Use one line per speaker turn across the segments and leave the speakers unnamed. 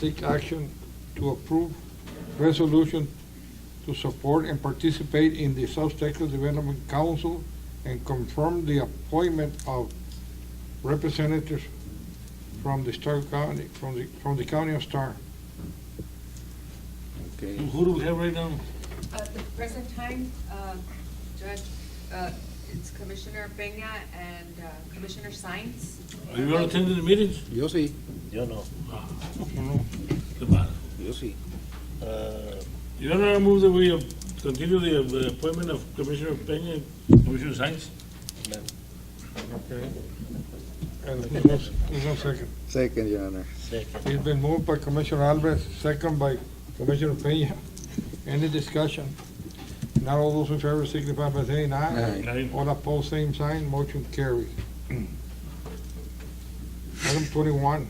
take action to approve resolution to support and participate in the South Texas Development Council and confirm the appointment of representatives from the Star County, from the, from the county of Star.
Okay,
Who do we have right now?
At Uh, the present time, uh, Judge, uh, it's Commissioner Peña and uh, Commissioner Sines.
Are you all attending the meetings?
yo sí,
Yo no.
Qué mal.
yo sí.
Uh,
Your Honor, I move that we uh, continue the uh, appointment of Commissioner Peña and Commissioner Sines.
Okay. And there's no, there's no second.
Second, Your Honor.
second.
It's been moved by Commissioner Alves, second by Commissioner Peña. Any discussion? Not all those in favor signify by saying aye.
Aye.
All opposed, same sign, motion carries. Item twenty-one,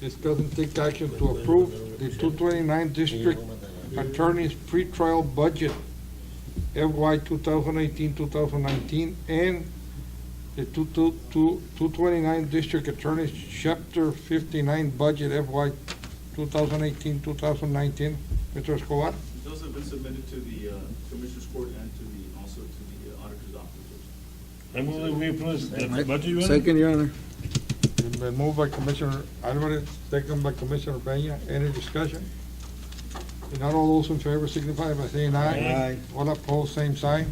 discuss and take action to approve the two twenty-nine district attorney's pretrial budget FY 2018-2019 and the two, two, two, two twenty-nine district attorney's chapter fifty-nine budget FY 2018-2019. Mr. Escobar,
Those have been submitted to the uh, Commissioners Court and to the, also to the uh, Auditor's Office.
I move that we approve the budget, Your Honor.
Second, Your Honor.
it's been moved by Commissioner Alvarez, second by Commissioner Peña. Any discussion? If not all those in favor signify by saying aye.
Aye.
All opposed, same sign.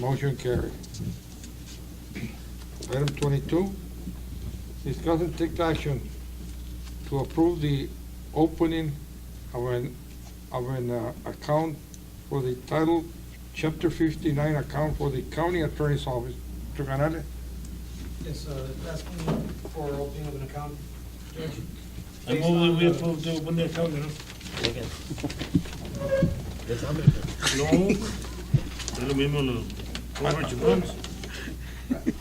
Motion carried. Item twenty-two, discuss and take action to approve the opening of an, of an uh, account for the title, chapter fifty-nine account for the county attorney's office. Mr. Canales?
Yes, uh, asking for opening of an account, Judge.
I
Based
move that
on
we
the-
approve the, when they come,
Second.
No. Es lo mismo los Robert Chacons.
uh,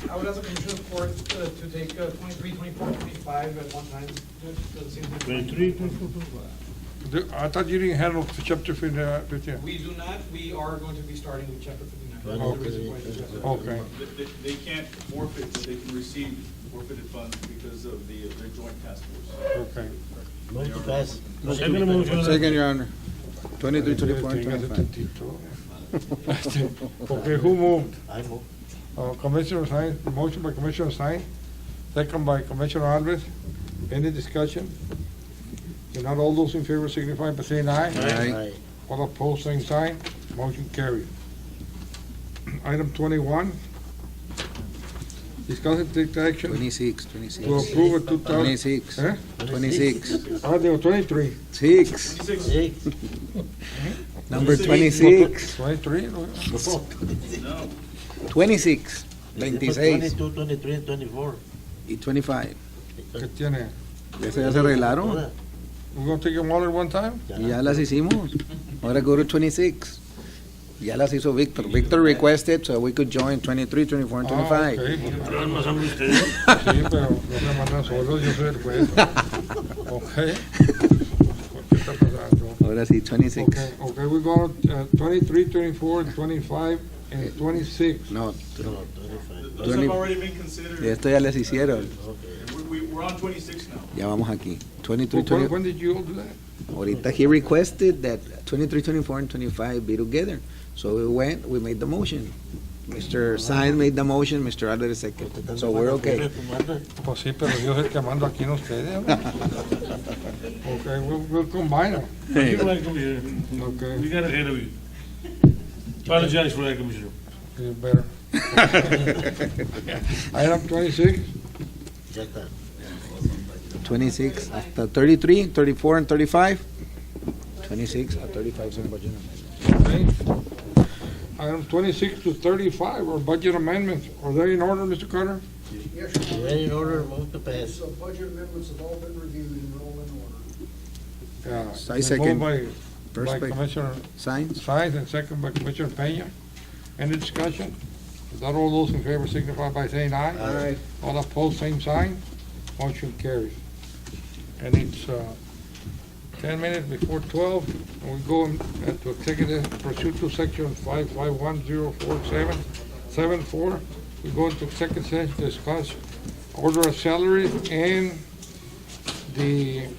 I would ask the Commissioner of Court uh, to take uh, 23, 24, 25 at one time, Judge, so it seems like-
Twenty-three, twenty-four,
The- I thought you didn't handle the chapter fifty, uh, fifty.
We do not, we are going to be starting with chapter 59. That's the reason why it's just-
Okay,
They- they- They can't forfeit, but they can receive forfeited funds because of the, uh, their joint task force.
okay.
Move to pass. Move to-
Second motion.
Second, Your Honor. Twenty-three, twenty-four, and twenty-five.
Okay, who moved?
I move.
Uh, Commissioner Sines, motion by Commissioner Sines, second by Commissioner Alves. Any discussion? If not, all those in favor signify by saying aye.
Aye.
All opposed, same sign. Motion carried. Item twenty-one, discuss and take action
Twenty-six,
to
twenty-six.
approve a two thousand.
Twenty-six.
Eh?
Twenty-six.
Ah, they were twenty-three.
Six.
Twenty-six,
Six.
Number twenty-six.
Twenty-three? no?
no,
Twenty-six. Veintiséis.
Twenty-two, twenty-three, and twenty-four.
Y twenty-five.
¿Qué tiene?
¿Ya se ya se arreglaron?
Todas.
We gonna take them all at one time?
Y ya las hicimos. Ahora go to twenty-six. Ya las hizo Victor. Victor requested so we could join twenty-three, twenty-four, and
Ah,
twenty-five.
ok, pues,
Pero es más hambre ustedes.
Sí, pero no me mandan solos, yo soy el juez. Ok. ¿Qué está pasando?
Ahora sí, twenty-six.
Okay, okay, we go uh, 23, 24, 25, and 26.
No,
No,
th-
twenty-five.
those
Twenty-
have already been considered.
esto ya las hicieron.
We- We, we're on twenty-six now.
Ya vamos aquí. 23,
Wh- When
20,
when did you do that?
ahorita he requested that 23, 24, and 25 be together. So we went, we made the motion. Mr. Sainz made the motion, Mr. Alvarez second. So we're okay.
Pues sí, pero yo soy el que mando aquí en ustedes. ¿no? Okay, we'll- we'll combine them.
You like, Commissioner. We
Okay,
got ahead of you. Apologize for that, Commissioner.
it's better. Item 26,
Ya está.
26 hasta 33, 34, and 35. 26 a 35 son budget amendments.
okay? Item 26 to 35 are budget amendments. Are they in order, Mr. Carter?
Yes,
Is
Your
that
Honor.
in order? Move to pass.
So budget amendments have all been reviewed and are all in order.
Yeah.
I
Moved
second.
by-
First
by
by
Commissioner
Sainz.
Sines and second by Commissioner Peña. Any discussion? If not, all those in favor signify by saying aye.
Aye.
All opposed, same sign. Motion carries. And it's uh, 10 minutes before 12, and we go into executive pursuit to section 5510477. We go into executive session, to discuss order of salaries and the